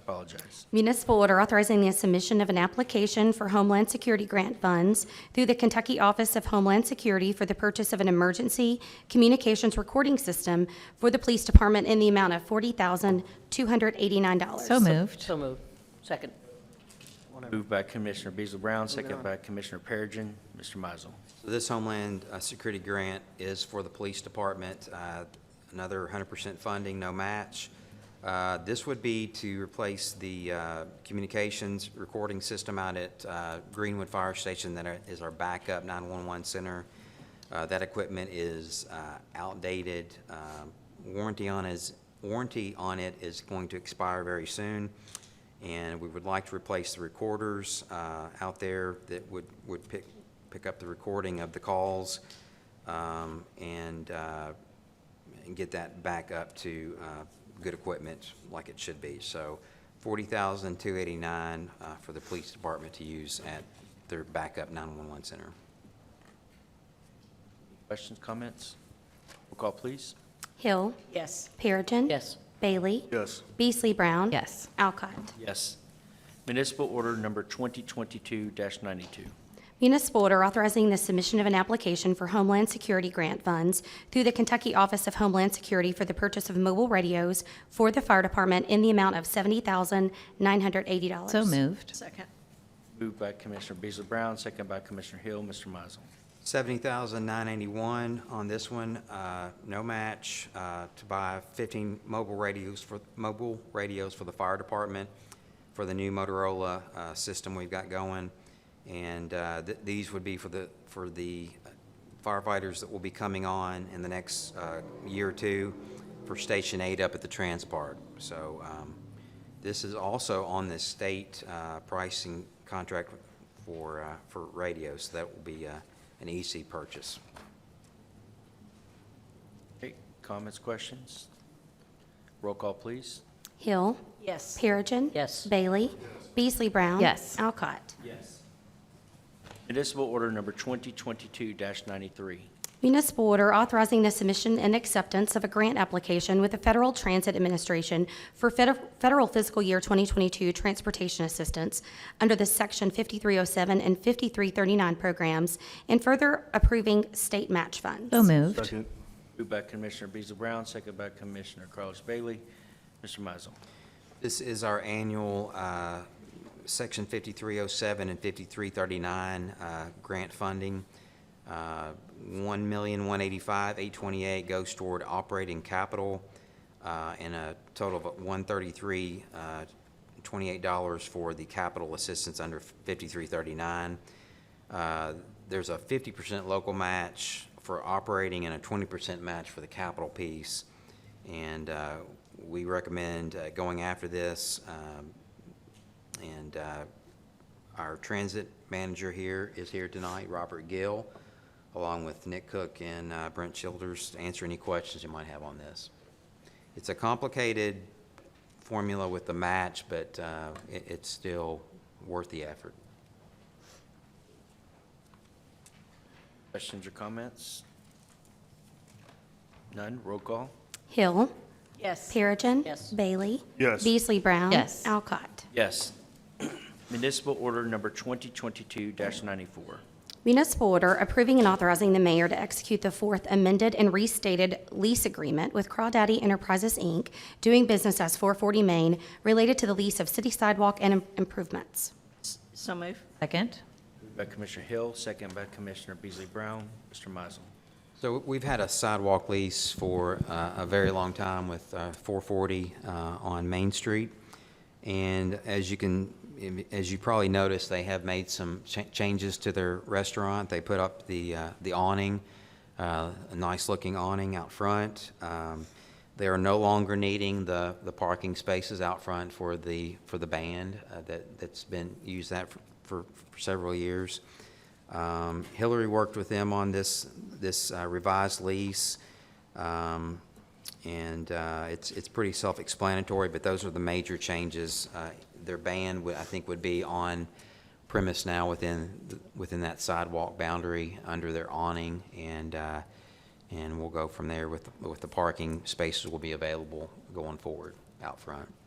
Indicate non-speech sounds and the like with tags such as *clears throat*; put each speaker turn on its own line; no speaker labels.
apologize.
Municipal order authorizing the submission of an application for Homeland Security grant funds through the Kentucky Office of Homeland Security for the purchase of an emergency communications recording system for the police department in the amount of $40,289.
So moved.
So moved. Second.
Moved by Commissioner Beasley Brown, second by Commissioner Perigin. Mr. Mizel.
This Homeland uh, Security Grant is for the police department, uh, another 100% funding, no match. Uh, This would be to replace the uh, communications recording system out at uh, Greenwood Fire Station that are- is our backup 911 center. Uh, That equipment is uh, outdated. Um, Warranty on is, warranty on it is going to expire very soon. And we would like to replace the recorders uh, out there that would, would pick, pick up the recording of the calls um, and, uh, and get that back up to uh, good equipment like it should be. So $40,289 uh, for the police department to use at their backup 911 center.
Questions, comments? Roll call, please.
Hill.
Yes.
Perigin.
Yes.
Bailey.
Yes.
Beasley Brown.
Yes.
Alcott.
Yes. Municipal order number 2022-92.
Municipal order authorizing the submission of an application for Homeland Security grant funds through the Kentucky Office of Homeland Security for the purchase of mobile radios for the fire department in the amount of $70,980.
So moved.
Second.
Moved by Commissioner Beasley Brown, second by Commissioner Hill. Mr. Mizel.
70,981 on this one, uh, no match, uh, to buy 15 mobile radios for, mobile radios for the fire department for the new Motorola uh, system we've got going. And uh, th- these would be for the, for the firefighters that will be coming on in the next uh, year or two for Station 8 up at the Transpart. So um, this is also on the state uh, pricing contract for, uh, for radios. So That will be uh, an EC purchase.
Okay, comments, questions? Roll call, please.
Hill.
Yes.
Perigin.
Yes.
Bailey. Beasley Brown.
Yes.
Alcott.
Yes. Municipal order number 2022-93.
Municipal order authorizing the submission and acceptance of a grant application with the Federal Transit Administration for fed- federal fiscal year 2022 transportation assistance under the Section 5307 and 5339 programs, and further approving state match funds.
So moved.
Moved by Commissioner Beasley Brown, second by Commissioner Carlos Bailey. Mr. Mizel.
This is our annual uh, Section 5307 and 5339 uh, grant funding. Uh, 1,185,828 goes toward operating capital uh, and a total of 133, uh, 28 dollars for the capital assistance under 5339. Uh, There's a 50% local match for operating and a 20% match for the capital piece. And uh, we recommend uh, going after this. um, And uh, our transit manager here is here tonight, Robert Gill, along with Nick Cook and uh, Brent Childers, to answer any questions you might have on this. It's a complicated formula with the match, but uh, it- it's still worth the effort.
Questions or comments? None, roll call.
Hill.
Yes.
Perigin.
Yes.
Bailey.
Yes.
Beasley Brown.
Yes.
Alcott.
Yes. *clears throat* Municipal order number 2022-94.
Municipal order approving and authorizing the mayor to execute the fourth amended and restated lease agreement with Crawdaddy Enterprises, Inc., doing business as 440 Main, related to the lease of city sidewalk and im- improvements.
So moved.
Second.
Moved by Commissioner Hill, second by Commissioner Beasley Brown. Mr. Mizel.
So we've had a sidewalk lease for uh, a very long time with uh, 440 uh, on Main Street. And as you can, as you probably noticed, they have made some cha- changes to their restaurant. They put up the uh, the awning, uh, a nice-looking awning out front. Um, They are no longer needing the the parking spaces out front for the, for the band uh, that, that's been, used that for- for for several years. Um, Hillary worked with them on this, this uh, revised lease, um, and uh, it's, it's pretty self-explanatory, but those are the major changes. Uh, Their ban, would- I think, would be on premise now within, within that sidewalk boundary, under their awning, and, uh, and we'll go from there with, with the parking spaces will be available going forward out front.